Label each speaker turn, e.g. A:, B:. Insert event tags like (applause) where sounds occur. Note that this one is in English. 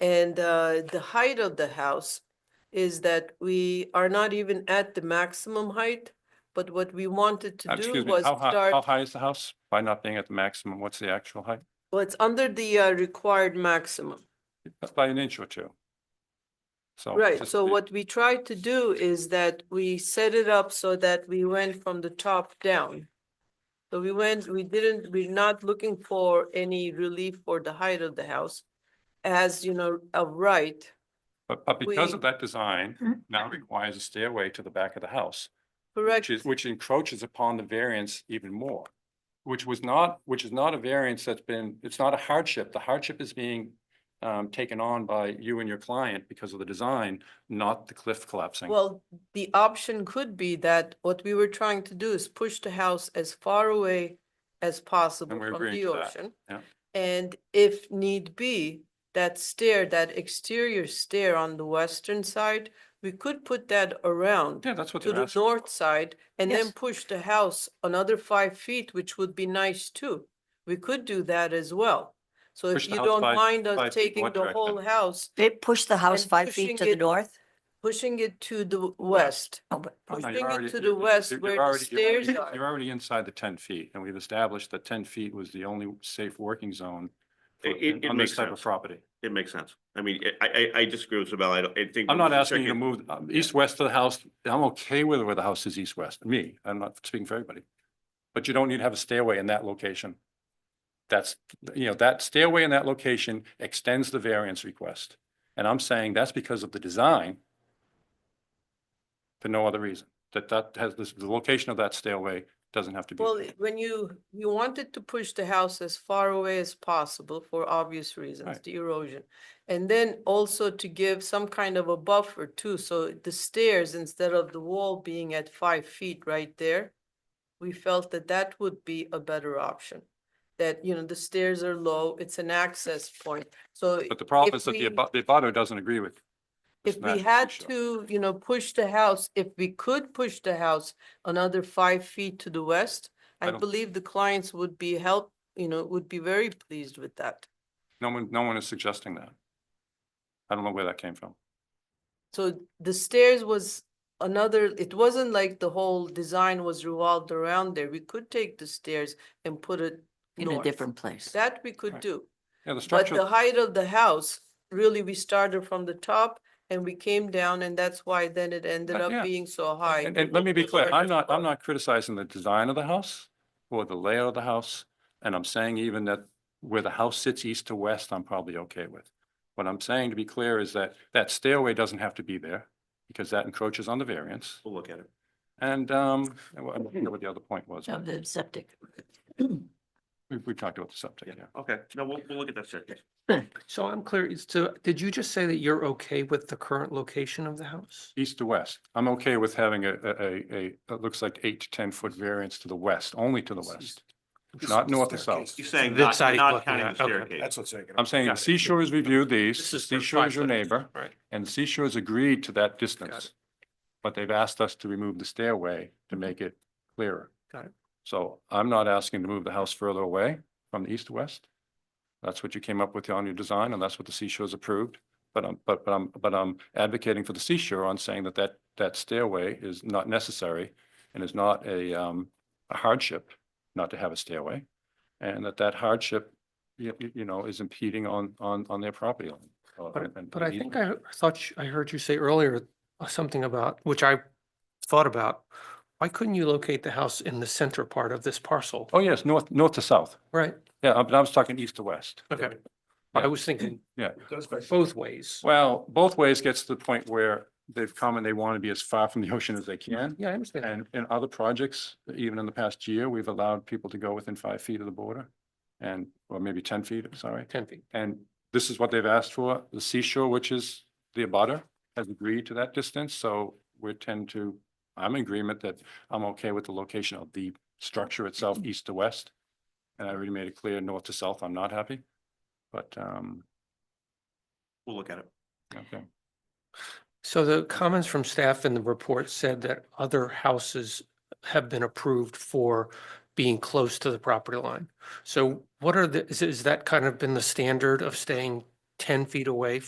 A: And uh, the height of the house is that we are not even at the maximum height, but what we wanted to do
B: Uh, Excuse me,
A: was
B: how high, how
A: start,
B: high is the house? By not being at the maximum, what's the actual height?
A: well, it's under the uh, required maximum.
B: By an inch or two. So.
A: Right,
B: Oh, just
A: so
B: the-
A: what we tried to do is that we set it up so that we went from the top down. So we went, we didn't, we're not looking for any relief for the height of the house. As you know, of right,
B: But, but because of
A: we-
B: that design, now requires a stairway to the back of the house.
A: correct,
B: which is, which encroaches upon the variance even more. Which was not, which is not a variance that's been, it's not a hardship. The hardship is being um, taken on by you and your client because of the design, not the cliff collapsing.
A: well, the option could be that what we were trying to do is push the house as far away. As possible
B: we're
A: from
B: agreeing
A: the
B: to that,
A: ocean.
B: yeah.
A: And if need be, that stair, that exterior stair on the western side, we could put that around.
B: Yeah, that's what
A: to
B: they're
A: the
B: asking.
A: north side and then
C: Yes.
A: push the house another five feet, which would be nice too. We could do that as well. So
B: Push
A: if
B: the
A: you
B: house
A: don't
B: five-
A: mind
B: five
A: us
B: feet in
A: taking
B: one
A: the
B: direction.
A: whole house,
C: They pushed the house
A: And
C: five feet
A: pushing
C: to the
A: it-
C: north?
A: pushing it to the west.
C: Oh, but
B: No, you're
A: pushing it
B: already-
A: to the
B: you're- you're-
A: west
B: you're
A: where the
B: already- you're-
A: stairs are.
B: You're already inside the ten feet, and we've established that ten feet was the only safe working zone for-
D: It- it- it
B: on this
D: makes
B: type of
D: sense.
B: property.
D: It makes sense. I mean, I, I, I disagree with Isabel. I don't, I think.
B: I'm not asking you to
D: Chicken-
B: move um, east-west of the house. I'm okay with where the house is east-west, me. I'm not speaking for everybody. But you don't need to have a stairway in that location. That's, you know, that stairway in that location extends the variance request. And I'm saying that's because of the design for no other reason. That that has, this- the location of that stairway doesn't have to be.
A: Well, i- when you, you wanted to push the house as far away as possible for obvious reasons,
B: Right.
A: the erosion. And then also to give some kind of a buffer too, so the stairs, instead of the wall being at five feet right there, we felt that that would be a better option. That, you know, the stairs are low, it's an access point, so
B: But the problem
A: if
B: is that the
A: we-
B: abu- the abutter doesn't agree with. this
A: if
B: matter,
A: we
B: for
A: had
B: sure.
A: to, you know, push the house, if we could push the house another five feet to the west,
B: I
A: I
B: don't-
A: believe the clients would be help, you know, would be very pleased with that.
B: No one, no one is suggesting that. I don't know where that came from.
A: So the stairs was another, it wasn't like the whole design was revolved around there. We could take the stairs and put it
C: in a
A: north.
C: different place.
A: That we could
B: Right.
A: do.
B: Yeah, the
A: But
B: structure.
A: the height of the house, really, we started from the top and we came down and that's why then it ended
B: Uh, yeah.
A: up being so high.
B: And, and let me be clear, I'm not, I'm not criticizing the design of the house or the layout of the house. And I'm saying even that where the house sits east to west, I'm probably okay with. What I'm saying to be clear is that that stairway doesn't have to be there because that encroaches on the variance.
D: We'll look at it.
B: And, um, I don't know what the other point was.
C: Of the septic. (clears throat)
B: We, we talked about the subject, yeah.
D: Yeah, okay. No, we'll, we'll look at that staircase.
E: So I'm clear, is to, did you just say that you're okay with the current location of the house?
B: East to west. I'm okay with having a, a, a, a, it looks like eight to 10 foot variance to the west, only to the west. Not north or south.
D: You're saying
E: This
D: not,
E: side
D: you're
E: he's
D: not
E: looking
D: counting the
E: at, okay.
D: staircase.
F: That's what's taking.
B: I'm saying the
E: Got it.
B: Seashore has reviewed these.
E: This is for
B: Seashore is your
E: five foot.
B: neighbor.
E: Right.
B: And Seashore has agreed to that distance. But they've asked us to remove the stairway to make it clearer.
E: Got it.
B: So I'm not asking to move the house further away from the east to west. That's what you came up with on your design and that's what the Seashore's approved. But I'm, but, but I'm, but I'm advocating for the Seashore on saying that that, that stairway is not necessary and is not a, um, a hardship not to have a stairway. And that that hardship, you, you- you know, is impeding on, on, on their property line. uh, and-
E: But,
B: and-
E: but I
B: and
E: think
B: easement.
E: I thought, you- I heard you say earlier uh, something about, which I thought about. Why couldn't you locate the house in the center part of this parcel?
B: Oh, yes, north, north to south.
E: Right,
B: Yeah, I I was talking east to west.
E: okay.
B: Yeah.
E: I was thinking both ways.
B: Well, both ways gets to the point where they've come and they want to be as far from the ocean as they can.
E: Yeah, I understand.
B: And in other projects, even in the past year, we've allowed people to go within five feet of the border. And, or maybe ten feet, I'm sorry.
E: Ten feet.
B: And this is what they've asked for. The seashore, which is the abutter, has agreed to that distance, so we tend to, I'm in agreement that I'm okay with the location of the structure itself, east to west. And I already made it clear, north to south, I'm not happy. But, um,
D: We'll look at it.
B: okay.
E: So the comments from staff in the report said that other houses have been approved for being close to the property line. So what are the, is, is that kind of been the standard of staying ten feet away